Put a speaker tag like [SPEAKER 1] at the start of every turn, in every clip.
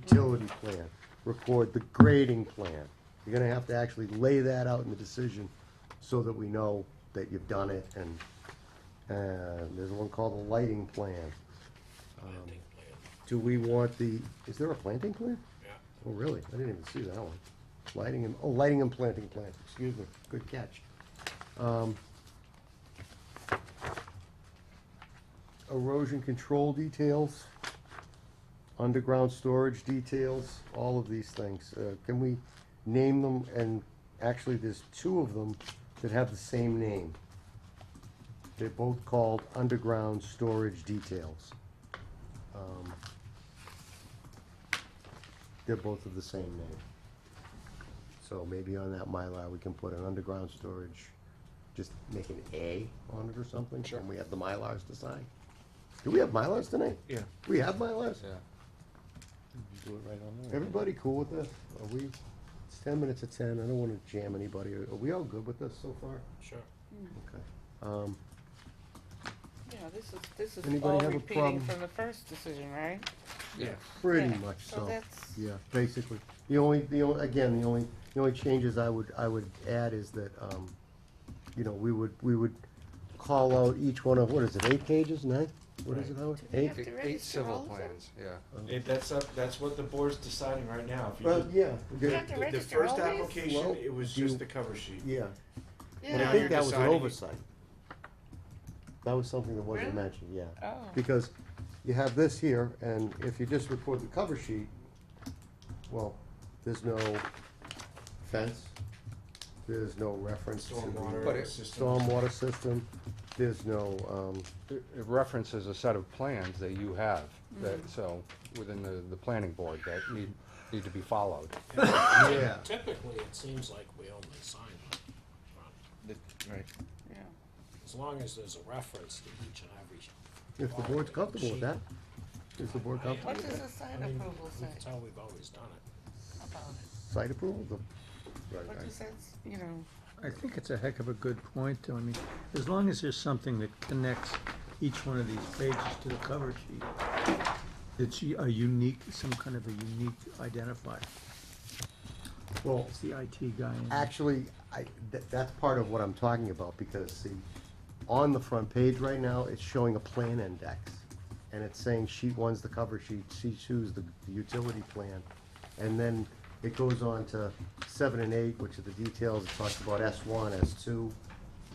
[SPEAKER 1] utility plan, record the grading plan. You're gonna have to actually lay that out in the decision so that we know that you've done it and, uh, there's one called the lighting plan. Um,
[SPEAKER 2] Planting plan,
[SPEAKER 1] Do we want the, is there a planting plan?
[SPEAKER 2] yeah.
[SPEAKER 1] Oh, really? I didn't even see that one. Lighting and, oh, lighting and planting plan, excuse me, good catch. Um, Erosion control details, underground storage details, all of these things. Uh, Can we name them, and actually, there's two of them that have the same name. They're both called underground storage details. Um, they're both of the same name. So maybe on that Mylar, we can put an underground storage, just make an A on it or something, and we have the Mylars to sign. Do we have Mylars tonight?
[SPEAKER 3] Yeah.
[SPEAKER 1] We have Mylars?
[SPEAKER 3] Yeah. You do it right on there.
[SPEAKER 1] Everybody cool with this? Are we, it's ten minutes to ten, I don't wanna jam anybody, are we all good with this so far?
[SPEAKER 2] Sure.
[SPEAKER 1] Okay. Um,
[SPEAKER 4] Yeah, this is, this is
[SPEAKER 1] Anybody
[SPEAKER 4] all
[SPEAKER 1] have a
[SPEAKER 4] repeating
[SPEAKER 1] problem?
[SPEAKER 4] from the first decision, right?
[SPEAKER 3] Yeah.
[SPEAKER 1] pretty
[SPEAKER 4] Yeah,
[SPEAKER 1] much
[SPEAKER 4] so
[SPEAKER 1] so,
[SPEAKER 4] that's-
[SPEAKER 1] yeah, basically. The only, the only, again, the only, the only changes I would, I would add is that, um, you know, we would, we would call out each one of, what is it, eight pages, nine? What is it, Howard?
[SPEAKER 4] Do we
[SPEAKER 1] Eight?
[SPEAKER 4] have to
[SPEAKER 3] Eight- Eight
[SPEAKER 4] register
[SPEAKER 3] civil
[SPEAKER 4] all of them?
[SPEAKER 3] plans, yeah.
[SPEAKER 5] If that's up, that's what the board's deciding right now. If you
[SPEAKER 1] Well,
[SPEAKER 5] did-
[SPEAKER 1] yeah,
[SPEAKER 4] You
[SPEAKER 1] good.
[SPEAKER 4] have to
[SPEAKER 5] the- The
[SPEAKER 4] register all
[SPEAKER 5] first
[SPEAKER 4] these?
[SPEAKER 5] application,
[SPEAKER 1] Well,
[SPEAKER 5] it was
[SPEAKER 1] do you-
[SPEAKER 5] just the cover sheet.
[SPEAKER 1] yeah.
[SPEAKER 4] Yeah.
[SPEAKER 1] But I
[SPEAKER 5] Now
[SPEAKER 1] think
[SPEAKER 5] you're
[SPEAKER 1] that was an
[SPEAKER 5] deciding-
[SPEAKER 1] oversight. That was something that wasn't
[SPEAKER 4] Really?
[SPEAKER 1] mentioned, yeah.
[SPEAKER 4] Oh.
[SPEAKER 1] Because you have this here, and if you just record the cover sheet, well, there's no fence, there's no reference to the
[SPEAKER 3] But
[SPEAKER 5] Stormwater
[SPEAKER 3] it-
[SPEAKER 5] system.
[SPEAKER 1] stormwater system, there's no, um,
[SPEAKER 3] It it references a set of plans that you have, that, so, within the, the planning board that need, need to be followed.
[SPEAKER 1] yeah,
[SPEAKER 2] Typically, it seems like we only sign one,
[SPEAKER 3] Right.
[SPEAKER 4] Yeah.
[SPEAKER 2] as long as there's a reference to each and every.
[SPEAKER 1] if the board's comfortable with that, is the board comfortable
[SPEAKER 4] What
[SPEAKER 1] with
[SPEAKER 4] does
[SPEAKER 1] that?
[SPEAKER 4] the
[SPEAKER 2] I
[SPEAKER 4] site
[SPEAKER 2] mean,
[SPEAKER 4] approval say
[SPEAKER 2] That's how we've always done it.
[SPEAKER 4] about it?
[SPEAKER 1] Site approval, the, right,
[SPEAKER 4] What
[SPEAKER 1] right.
[SPEAKER 4] does that, s- you know,
[SPEAKER 6] I think it's a heck of a good point, though. I mean, as long as there's something that connects each one of these pages to the cover sheet, it's u- a unique, some kind of a unique identifier.
[SPEAKER 1] Well,
[SPEAKER 6] It's the IT guy. in-
[SPEAKER 1] Actually, I, that, that's part of what I'm talking about, because see, on the front page right now, it's showing a plan index. And it's saying sheet one's the cover sheet, sheet two's the the utility plan. And then it goes on to seven and eight, which are the details, it talks about S one, S two.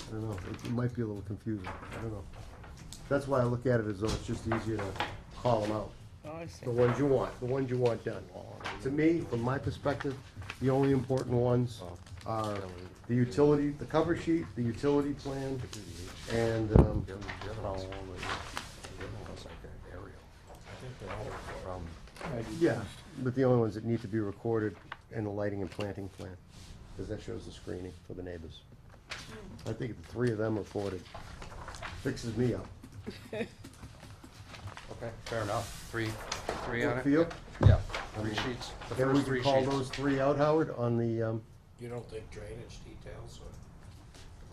[SPEAKER 1] I don't know, it, it might be a little confusing, I don't know. That's why I look at it as though it's just easier to call them out.
[SPEAKER 4] oh, I see.
[SPEAKER 1] The ones you want, the ones you want done. To me, from my perspective, the only important ones are the utility, the cover sheet, the utility plan, and, um,
[SPEAKER 5] I think they're all for
[SPEAKER 3] Um,
[SPEAKER 5] it.
[SPEAKER 1] yeah, but the only ones that need to be recorded, and the lighting and planting plan, because that shows the screening for the neighbors. I think the three of them recorded fixes me up.
[SPEAKER 3] Okay, fair enough. Three, three on
[SPEAKER 1] Good
[SPEAKER 3] it?
[SPEAKER 1] for you?
[SPEAKER 3] Yeah,
[SPEAKER 1] I
[SPEAKER 3] three
[SPEAKER 1] mean,
[SPEAKER 3] sheets, the
[SPEAKER 1] Then we can
[SPEAKER 3] first three
[SPEAKER 1] call
[SPEAKER 3] sheets.
[SPEAKER 1] those three out, Howard, on the, um,
[SPEAKER 2] You don't think drainage details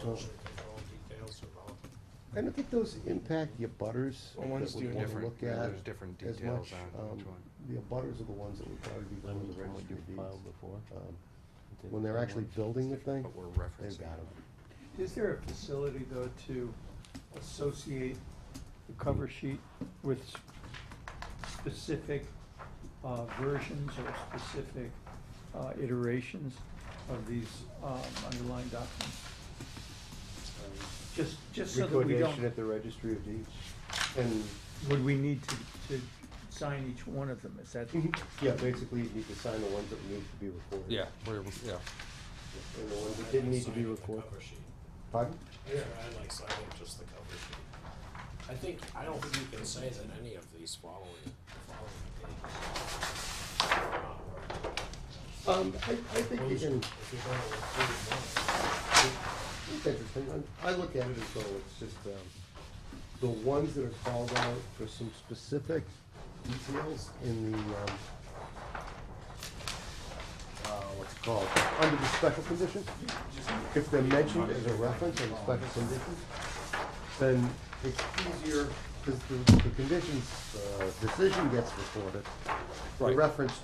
[SPEAKER 2] or erosion control details are relevant?
[SPEAKER 1] I don't think those impact your butters.
[SPEAKER 3] Well, one's
[SPEAKER 1] that we'd
[SPEAKER 3] do
[SPEAKER 1] wanna
[SPEAKER 3] different,
[SPEAKER 1] look
[SPEAKER 3] yeah,
[SPEAKER 1] at
[SPEAKER 3] there's different
[SPEAKER 1] as
[SPEAKER 3] details
[SPEAKER 1] much.
[SPEAKER 3] on
[SPEAKER 1] Um,
[SPEAKER 3] each one.
[SPEAKER 1] The butters are the ones that would probably be going to register deeds.
[SPEAKER 3] before.
[SPEAKER 1] Um, When they're actually building the thing,
[SPEAKER 3] But we're
[SPEAKER 1] they've
[SPEAKER 3] referencing.
[SPEAKER 1] got them.
[SPEAKER 6] Is there a facility, though, to associate the cover sheet with s- specific uh, versions or specific uh, iterations of these um, underlying documents? Just, just so that we don't,
[SPEAKER 1] the registry of deeds. And,
[SPEAKER 6] would we need to, to sign each one of them? Is that,
[SPEAKER 1] yeah, basically you need to sign the ones that need to be recorded.
[SPEAKER 3] Yeah, we're, yeah.
[SPEAKER 1] And the ones that didn't need to be recorded. Pardon?
[SPEAKER 2] Yeah, I like signing just the cover sheet. I think, I don't think you can say that any of these following, following pages are not working.
[SPEAKER 1] Um, I, I think you
[SPEAKER 2] If you're
[SPEAKER 1] can,
[SPEAKER 2] gonna include one.
[SPEAKER 1] it's interesting, I, I look at it as though it's just, um, the ones that are called out for some specific details in the, um, uh, what's it called, under the special conditions, if they're mentioned as a reference in the special conditions, then it's easier, because the, the conditions, uh, decision gets recorded, the
[SPEAKER 3] Right.
[SPEAKER 1] reference